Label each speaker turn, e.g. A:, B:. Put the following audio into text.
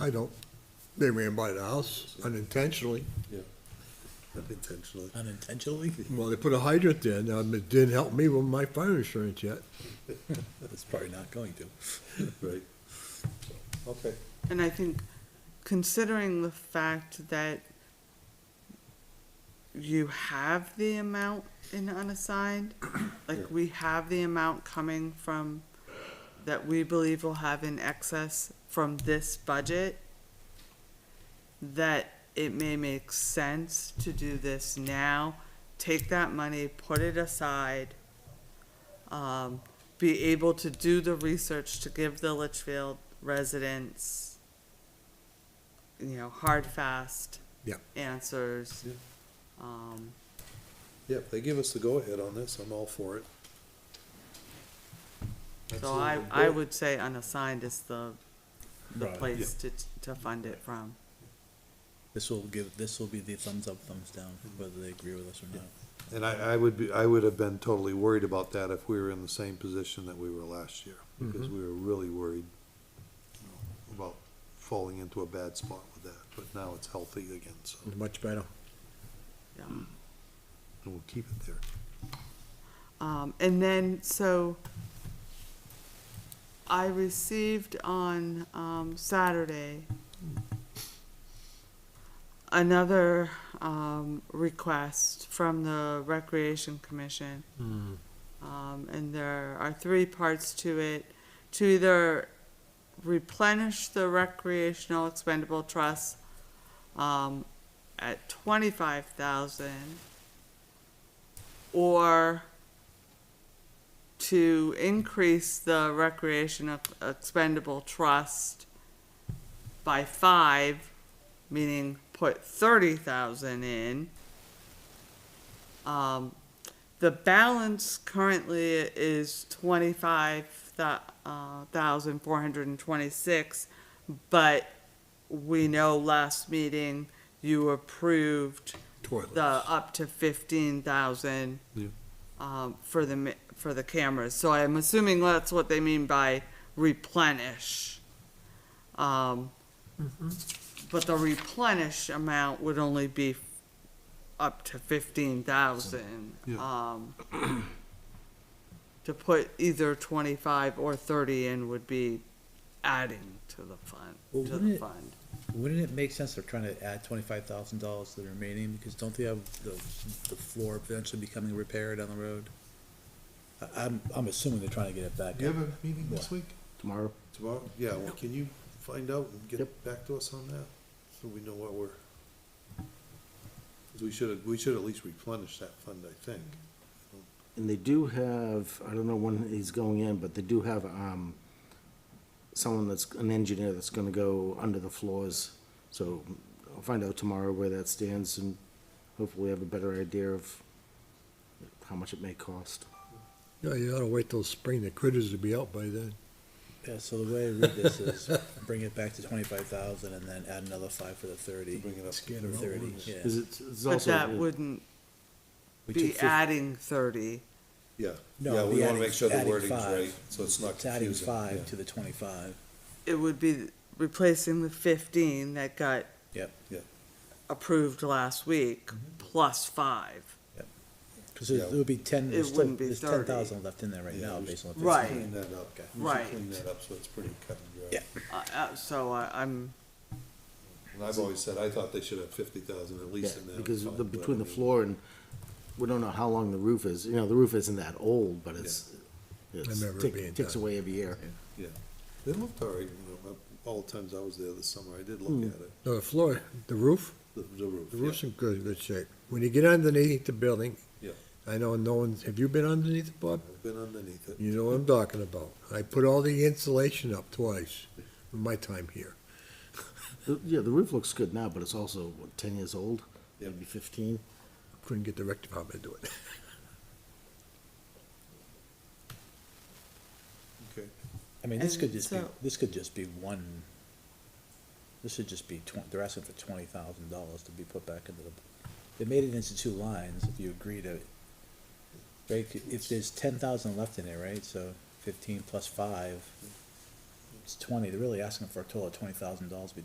A: I don't, they ran by the house unintentionally.
B: Unintentionally.
C: Unintentionally?
A: Well, they put a hydrant in, um, it didn't help me with my fire insurance yet.
C: It's probably not going to.
B: Right. Okay.
D: And I think considering the fact that you have the amount in unassigned,
B: Yeah.
D: like we have the amount coming from, that we believe will have in excess from this budget, that it may make sense to do this now, take that money, put it aside, um, be able to do the research to give the Litchfield residents, you know, hard, fast
A: Yeah.
D: answers.
B: Yeah.
D: Um,
B: Yeah, if they give us the go-ahead on this, I'm all for it.
D: so I,
B: Absolutely.
D: I would say unassigned is the, the
C: Right.
D: place to, to fund it from.
C: This will give, this will be the thumbs up, thumbs down, whether they agree with us or not.
B: And I, I would be, I would have been totally worried about that if we were in the same position that we were last year, because
C: Mm-hmm.
B: we were really worried you know, about falling into a bad spot with that, but now it's healthy again, so,
A: Much better.
D: Yeah.
B: and we'll keep it there.
D: Um, and then, so I received on, um, Saturday another, um, request from the Recreation Commission. Um, and there are three parts to it, to either replenish the recreational expendable trust, um, at twenty-five thousand or to increase the recreation of- expendable trust by five, meaning put thirty thousand in. Um, the balance currently is twenty-five uh, but we know last meeting you approved
A: Toilets.
D: the up to fifteen thousand
B: Yeah.
D: um, for the, mi- for the cameras, so I'm assuming that's what they mean by replenish. Um,
C: Mm-hmm.
D: but the replenish amount would only be f- up to fifteen thousand.
B: Yeah.
D: Um, to put either twenty-five or thirty in would be adding to the
C: Well,
D: fund, to
C: wouldn't
D: the
C: it-
D: fund.
C: Wouldn't it make sense they're trying to add twenty-five thousand dollars to the remaining, because don't they have the, the floor eventually becoming repaired on the road? I, I'm, I'm assuming they're trying to get it back
B: Do you
C: up.
B: have a meeting this week?
E: tomorrow.
B: Tomorrow? Yeah, well, can you find out and get
E: Yep.
B: back to us on that, so we know what we're. 'cause we should, we should at least replenish that fund, I think.
E: And they do have, I don't know when he's going in, but they do have, um, someone that's, an engineer that's gonna go under the floors. So I'll find out tomorrow where that stands and hopefully have a better idea of how much it may cost.
A: Yeah, you oughta wait till spring, the critters will be out by then.
C: Yeah, so the way I read this is bring it back to twenty-five thousand and then add another five for the thirty.
B: Bring it up to
C: For Thirty, yeah.
E: Is it, it's
D: But
E: also.
D: that wouldn't
C: We took
D: be
C: fif-
D: adding thirty.
B: Yeah.
C: No,
B: Yeah,
C: it'd
B: we
C: be
B: wanna
C: adding-
B: make sure the
C: adding
B: wording's
C: five.
B: right, so it's not
C: It's adding
B: confusing.
C: five
B: Yeah.
C: to the twenty-five.
D: it would be replacing the fifteen that got
C: Yep.
B: Yep.
D: approved last week, plus five.
C: Because it
B: Yeah.
C: would be ten,
D: It
C: there's still,
D: wouldn't be
C: there's
D: 30.
C: ten thousand left in there right
B: Yeah,
C: now,
B: we
C: based on what they
D: Right.
C: said.
B: Clean that up,
C: Okay.
B: We should
D: Right.
B: Clean that up, so it's pretty cut and dry.
C: Yeah.
D: Uh, uh, so I, I'm,
B: And I've always said, I thought they should have fifty thousand at
E: Yeah,
B: least in that.
E: because
B: fund,
E: the,
B: but I
E: between the
B: mean,
E: floor and, we don't know how long the roof is, you know, the roof isn't that old, but it's, it's,
A: remember it
E: tick-
A: being
E: ticks
A: done.
E: away every year.
B: Yeah, it looked all right, you know, all the times I was there this summer, I did look
E: Hmm.
B: at it,
A: No, the floor, the roof,
B: the, the roof.
A: the
B: yeah.
A: roof's in good, good shape. When you get underneath the building.
B: Yeah.
A: I know no one's, have you been underneath it, Bob?
B: I've Been underneath it.
A: You know what I'm talking about. I put all the insulation up twice in my time here.
E: The- Yeah, the roof looks good now, but it's also, what, ten years old?
B: Yeah.
E: Maybe fifteen?
A: Couldn't get the rec department to do it.
B: Okay.
C: I mean, this
D: And
C: could just be,
D: so-
C: this could just be one, this should just be twen- they're asking for twenty thousand dollars to be put back into the, they made it into two lines, if you agree to, right, if there's ten thousand left in it, right, so fifteen plus five, it's twenty, they're really asking for a total of twenty thousand dollars to be